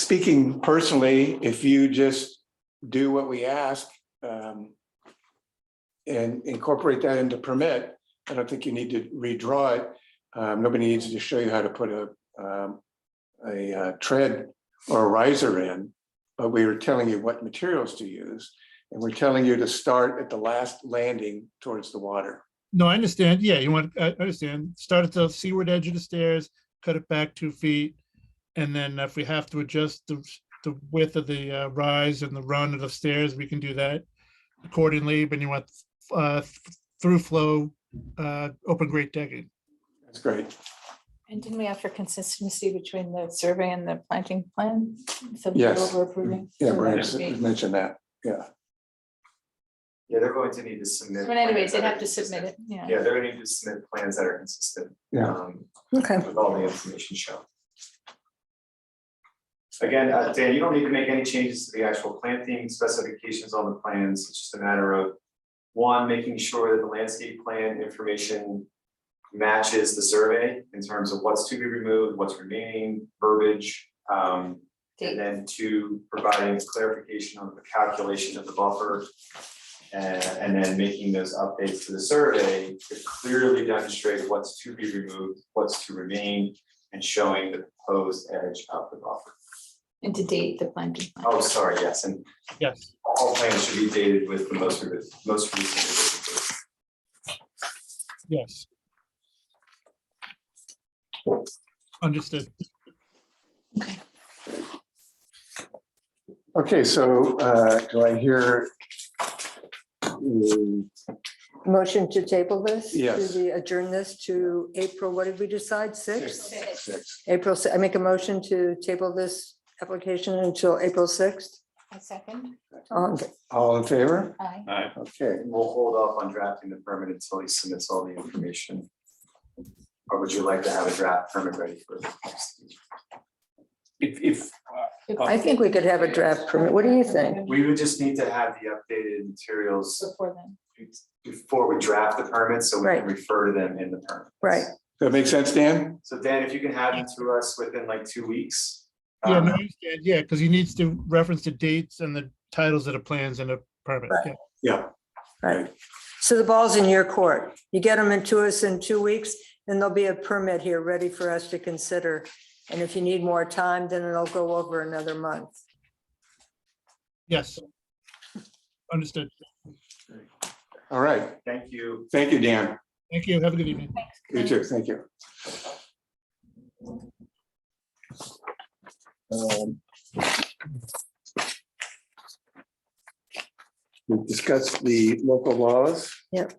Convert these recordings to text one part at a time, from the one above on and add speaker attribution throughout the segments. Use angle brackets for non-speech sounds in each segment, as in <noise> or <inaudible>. Speaker 1: speaking personally, if you just do what we ask um, and incorporate that into permit, I don't think you need to redraw it. Um, Nobody needs to show you how to put a um, a uh, tread or a riser in, but we were telling you what materials to use. And we're telling you to start at the last landing towards the water.
Speaker 2: No, I understand. Yeah, you want, I I understand. Start at the seaward edge of the stairs, cut it back two feet. And then if we have to adjust the, the width of the uh, rise and the run of the stairs, we can do that accordingly, but you want uh, through flow, uh, open grate decking.
Speaker 1: That's great.
Speaker 3: And didn't we ask for consistency between the survey and the planting plan? So we
Speaker 1: Yes. Mm-hmm.
Speaker 3: were approving.
Speaker 1: Yeah,
Speaker 3: So
Speaker 1: Brian
Speaker 3: that would be-
Speaker 1: mentioned that. Yeah.
Speaker 4: Yeah, they're going to need to submit.
Speaker 3: But anyways,
Speaker 4: plans
Speaker 3: they'd
Speaker 4: that are
Speaker 3: have to submit it,
Speaker 4: consistent.
Speaker 3: yeah.
Speaker 4: Yeah, they're gonna need to submit plans that are consistent.
Speaker 1: Yeah.
Speaker 4: um,
Speaker 3: Okay.
Speaker 4: With all the information shown. Again, uh, Dan, you don't need to make any changes to the actual planting specifications on the plans, it's just a matter of. One, making sure that the landscape plan information matches the survey in terms of what's to be removed, what's remaining, verbiage. Um, and then two, providing clarification on the calculation of the buffer. And, uh, and then making those updates to the survey to clearly demonstrate what's to be removed, what's to remain, and showing the proposed edge of the buffer.
Speaker 3: And to date the planting. plan.
Speaker 4: Oh, sorry, yes, and
Speaker 2: Yes.
Speaker 4: all plans should be dated with the most, revi- most recent. revision date.
Speaker 2: Yes. Understood.
Speaker 1: Okay, so uh, do I hear? mm,
Speaker 5: Motion to table this? to
Speaker 1: Yes.
Speaker 5: the- Adjourn this to April, what did we decide, sixth?
Speaker 1: six?
Speaker 5: April, si- I make a motion to table this application until April sixth.
Speaker 3: A second,
Speaker 5: Um,
Speaker 1: All in favor?
Speaker 3: aye.
Speaker 1: Okay,
Speaker 4: We'll hold off on drafting the permit until he submits all the information. Or would you like to have a draft permit ready for the next meeting?
Speaker 6: If, if,
Speaker 5: I think we could have a draft permit. What do you think?
Speaker 4: We would just need to have the updated materials
Speaker 3: Before then,
Speaker 4: before we draft the permits, so we
Speaker 5: Right.
Speaker 4: can refer to them in the permit.
Speaker 5: Right,
Speaker 1: that makes sense, Dan?
Speaker 4: So Dan, if you can have them to us within like two weeks.
Speaker 2: Yeah,
Speaker 4: um,
Speaker 2: no, I understand. Yeah, because he needs to reference the dates and the titles of the plans and the permit. Yeah.
Speaker 1: Yeah.
Speaker 5: right. So the ball's in your court. You get them into us in two weeks, then there'll be a permit here ready for us to consider. And if you need more time, then it'll go over another month.
Speaker 2: Yes. Understood.
Speaker 1: All right.
Speaker 4: Thank you.
Speaker 1: Thank you, Dan.
Speaker 2: Thank you. Have a good evening.
Speaker 1: You too. Thank you. Um, We've discussed the local laws.
Speaker 5: Yep.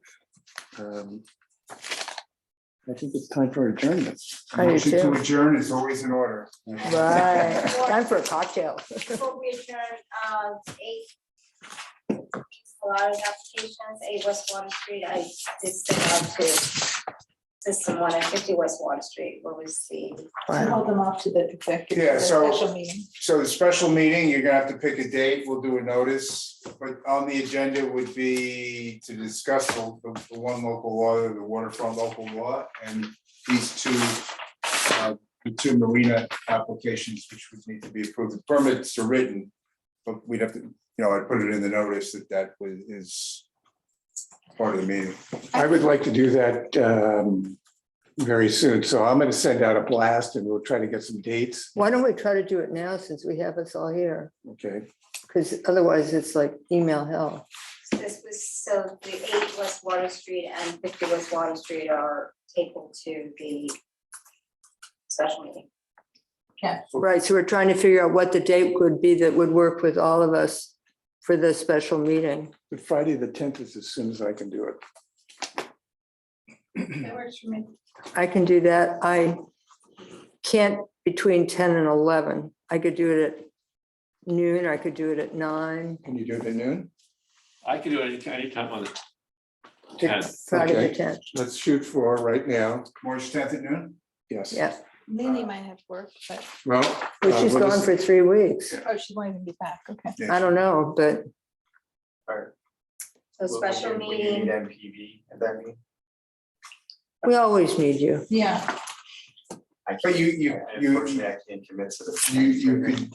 Speaker 1: Um, I think it's time for adjournment.
Speaker 5: I do
Speaker 6: motion to
Speaker 5: too.
Speaker 6: adjourn is always in order.
Speaker 5: Right, time for a cocktail. <laughs>
Speaker 7: Before we adjourn, uh, eight. A lot of applications, eight West Water Street, I did send out to System one and fifty West Water Street, what was the,
Speaker 3: We'll
Speaker 5: Wow.
Speaker 3: hold them off to the executive,
Speaker 6: Yeah,
Speaker 3: the
Speaker 6: so-
Speaker 3: special meeting.
Speaker 6: So the special meeting, you're gonna have to pick a date, we'll do a notice, but on the agenda would be to discuss the, the one local law, the waterfront local law, and these two uh, the two marina applications, which would need to be approved, the permits are written, but we'd have to, you know, I put it in the notice that that was, is part of the meeting.
Speaker 1: I would like to do that um, very soon, so I'm going to send out a blast and we'll try to get some dates,
Speaker 5: Why don't we try to do it now since we have us all here?
Speaker 1: okay?
Speaker 5: Because otherwise it's like email hell.
Speaker 7: this was, so the eight West Water Street and fifty West Water Street are tabled to the special meeting.
Speaker 5: Right, so we're trying to figure out what the date would be that would work with all of us for the special meeting.
Speaker 1: But Friday, the tenth is as soon as I can do it.
Speaker 3: That works for me.
Speaker 5: I can do that. I can't between ten and eleven. I could do it at noon, I could do it at nine,
Speaker 1: Can you do it at noon?
Speaker 8: I can do it any anytime on the
Speaker 5: Take
Speaker 8: tenth.
Speaker 5: Friday
Speaker 1: Okay.
Speaker 5: the tenth.
Speaker 1: Let's shoot for right now,
Speaker 6: March tenth at noon?
Speaker 1: yes.
Speaker 5: Yeah,
Speaker 3: Lily might have work, but,
Speaker 1: Well.
Speaker 5: but
Speaker 1: uh,
Speaker 5: she's
Speaker 1: we'll
Speaker 5: gone
Speaker 1: just-
Speaker 5: for three weeks.
Speaker 3: oh, she won't even be back, okay.
Speaker 5: I don't know, but
Speaker 7: So
Speaker 4: Will we
Speaker 7: special
Speaker 4: need- will you
Speaker 7: meeting,
Speaker 4: Need MPV at that meeting?
Speaker 5: we always need you.
Speaker 3: Yeah.
Speaker 4: I
Speaker 6: But you- you-
Speaker 4: can't-
Speaker 6: you-
Speaker 4: Unfortunately, I can't commit to the.
Speaker 6: You, you could